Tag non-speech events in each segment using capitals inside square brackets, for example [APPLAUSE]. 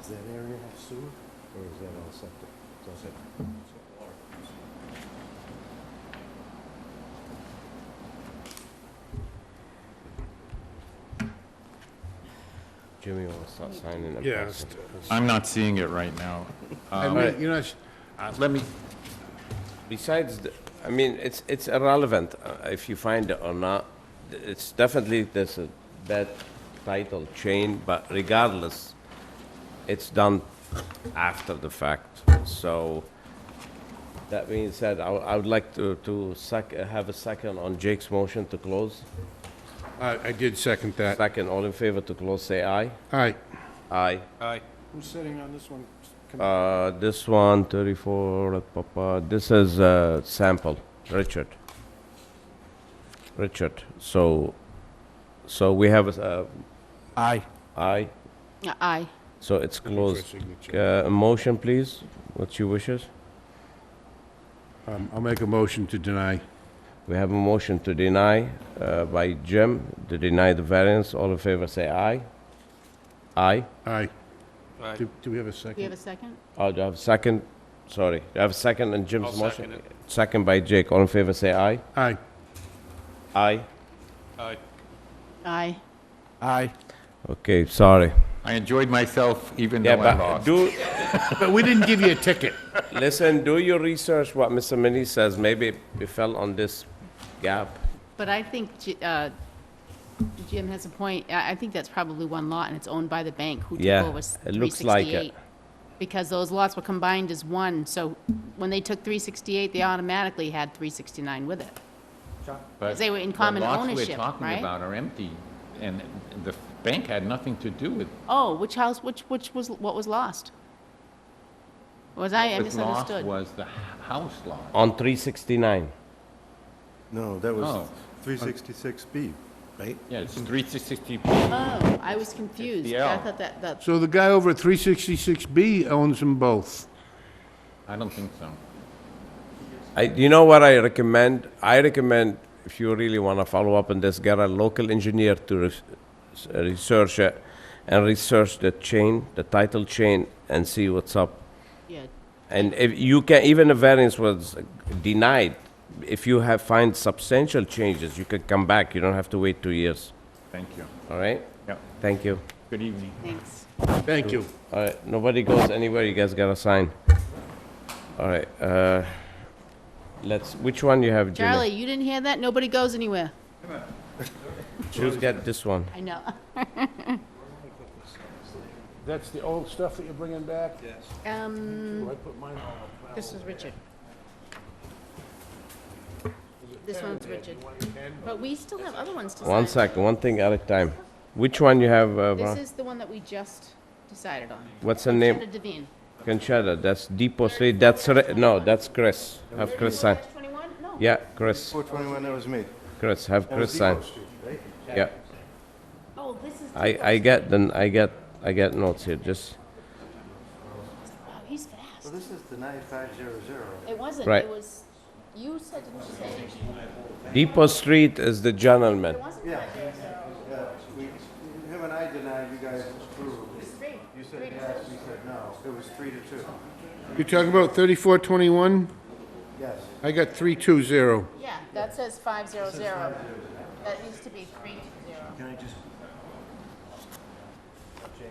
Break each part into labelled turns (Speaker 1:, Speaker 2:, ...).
Speaker 1: Does that area have sewer, or is that all septic? It's all septic.
Speaker 2: Jimmy will start signing them.
Speaker 3: Yeah,
Speaker 2: first.
Speaker 3: it's-
Speaker 4: I'm not seeing it right now.
Speaker 3: I
Speaker 4: Um,
Speaker 3: mean, you know, it's-
Speaker 4: uh, Let me,
Speaker 2: Besides, the- I mean, it's, it's irrelevant uh, if you find it or not. Th- It's definitely, there's a bad title chain, but regardless, it's done after the fact. So that being said, I, I would like to, to sec, have a second on Jake's motion to close.
Speaker 3: I, I did second that.
Speaker 2: Second, all in favor to close, say aye.
Speaker 3: All right,
Speaker 2: Aye.
Speaker 1: Who's sitting on this one? Come-
Speaker 2: Uh, this one, 34, papa, this is a sample, Richard. Richard, so, so we have a, uh,
Speaker 4: I,
Speaker 2: aye,
Speaker 5: Aye.
Speaker 2: so it's closed.
Speaker 3: signature.
Speaker 2: Uh, a motion, please, what's your wishes?
Speaker 3: Um, I'll make a motion to deny.
Speaker 2: We have a motion to deny, uh, by Jim, to deny the variance, all in favor, say aye. Aye,
Speaker 3: Aye. Do do we have a second?
Speaker 5: Do you have a second?
Speaker 2: oh, do I have a second? Sorry, do I have a second in Jim's motion? second by Jake, all in favor, say aye.
Speaker 3: Aye.
Speaker 2: Aye.
Speaker 5: Aye.
Speaker 4: I,
Speaker 2: Okay, sorry.
Speaker 4: I enjoyed myself even
Speaker 2: Yeah,
Speaker 4: though I
Speaker 2: but
Speaker 4: lost.
Speaker 2: do,
Speaker 3: [LAUGHS] But we didn't give you a ticket.
Speaker 2: listen, do your research, what Mr. Mini says, maybe it fell on this gap.
Speaker 5: But I think Ji- uh, Jim has a point. I I think that's probably one lot, and it's owned by the bank, who took
Speaker 2: Yeah,
Speaker 5: over s-
Speaker 2: it looks like it.
Speaker 5: 368. Because those lots were combined as one, so when they took 368, they automatically had 369 with it.
Speaker 4: But
Speaker 5: they were in common
Speaker 4: The
Speaker 5: ownership,
Speaker 4: lots we're talking
Speaker 5: right?
Speaker 4: about are empty, and the bank had nothing to do with,
Speaker 5: Oh, which house, which, which was, what was lost? Was I, I
Speaker 4: with lost
Speaker 5: misunderstood.
Speaker 4: was the h- house lot.
Speaker 2: On three sixty-nine,
Speaker 1: No, that was
Speaker 4: Oh.
Speaker 1: three sixty-six B, right?
Speaker 4: Yeah, it's 360,
Speaker 5: Oh, I was confused. I
Speaker 4: 50L.
Speaker 5: thought that, that,
Speaker 3: So the guy over at 366B owns them both.
Speaker 4: I don't think so.
Speaker 2: I, you know what I recommend? I recommend, if you really wanna follow up on this, get a local engineer to res- s- research it and research the chain, the title chain, and see what's up.
Speaker 5: yeah,
Speaker 2: And if you can, even a variance was denied, if you have, find substantial changes, you can come back, you don't have to wait two years,
Speaker 4: Thank you.
Speaker 2: all right?
Speaker 4: Yep.
Speaker 2: Thank you.
Speaker 4: Good evening.
Speaker 5: thanks.
Speaker 3: Thank you.
Speaker 2: All right, nobody goes anywhere, you guys gotta sign. All right, uh, let's, which one you have, Jimmy?
Speaker 5: Charlie, you didn't hear that? Nobody goes anywhere.
Speaker 2: Choose get this one.
Speaker 5: I know.
Speaker 3: That's the old stuff that you're bringing back?
Speaker 5: Um,
Speaker 3: I put mine on.
Speaker 5: this is Richard. This one's Richard. But we still have other ones to sign.
Speaker 2: One sec, one thing at a time. Which one you have, uh,
Speaker 5: This
Speaker 2: Ron?
Speaker 5: is the one that we just decided on.
Speaker 2: what's the
Speaker 5: Sandra
Speaker 2: name?
Speaker 5: Devine.
Speaker 2: Conchetta, that's Depot Street, that's, Ri- no, that's Chris. Have Chris sign.
Speaker 5: 21? No.
Speaker 2: Yeah, Chris,
Speaker 1: Four twenty-one, that was me.
Speaker 2: Chris, have
Speaker 1: That was
Speaker 2: Chris sign.
Speaker 1: Oh, Depot Street, right?
Speaker 2: Yeah,
Speaker 5: Oh, this is.
Speaker 2: I, I get, then, I get, I get notes here, just,
Speaker 5: Wow, Oh, he's
Speaker 1: So
Speaker 5: fast.
Speaker 1: this is the ninety-five zero zero.
Speaker 5: It wasn't,
Speaker 2: Right.
Speaker 5: it was, you said, didn't you say?
Speaker 2: Depot Street is the gentleman.
Speaker 5: It wasn't
Speaker 1: Yeah.
Speaker 5: five years ago.
Speaker 1: Yeah, we, him and I denied, you guys approved.
Speaker 5: Three.
Speaker 1: You said yes, we said no. It was three to two.
Speaker 3: You're talking about 3421?
Speaker 1: Yes.
Speaker 3: I got 320.
Speaker 5: Yeah, that says five zero zero. That used to be three two zero.
Speaker 1: Can I just? Change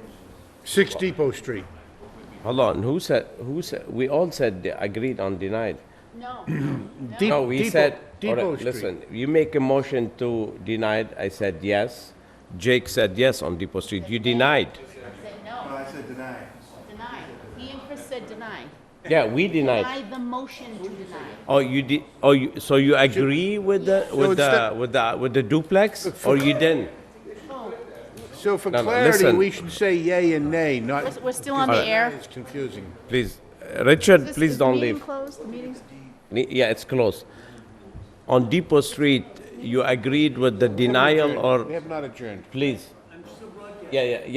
Speaker 3: 6 Depot Street.
Speaker 2: Hold on, who said, who said, we all said, de- agreed on denied.
Speaker 5: No,
Speaker 2: [CLEARS THROAT]
Speaker 3: Dep-
Speaker 2: No, we
Speaker 3: Depot-
Speaker 2: said, all
Speaker 3: Depot
Speaker 2: right,
Speaker 3: Street.
Speaker 2: listen, you make a motion to deny it, I said yes. Jake said yes on Depot Street, you denied.
Speaker 5: said no,
Speaker 1: No, I said deny.
Speaker 5: deny. He and Chris said deny.
Speaker 2: Yeah, we
Speaker 5: Deny
Speaker 2: denied.
Speaker 5: the motion to deny.
Speaker 2: Oh, you did, oh, you, so you agree with the, with the,
Speaker 3: instead-
Speaker 2: with the, with the duplex, or you didn't?
Speaker 3: So for
Speaker 2: No, no,
Speaker 3: clarity,
Speaker 2: listen.
Speaker 3: we should say yay and nay, not,
Speaker 5: We're- We're still on the air.
Speaker 3: it's confusing.
Speaker 2: Please, uh, Richard,
Speaker 5: This-
Speaker 2: please
Speaker 5: is the
Speaker 2: don't
Speaker 5: meeting
Speaker 2: leave.
Speaker 5: closed? The meeting's-
Speaker 2: Ne- Yeah, it's closed. On Depot Street, you agreed with the denial,
Speaker 3: We
Speaker 2: or,
Speaker 3: have not adjourned.
Speaker 2: please? Yeah, yeah, yeah.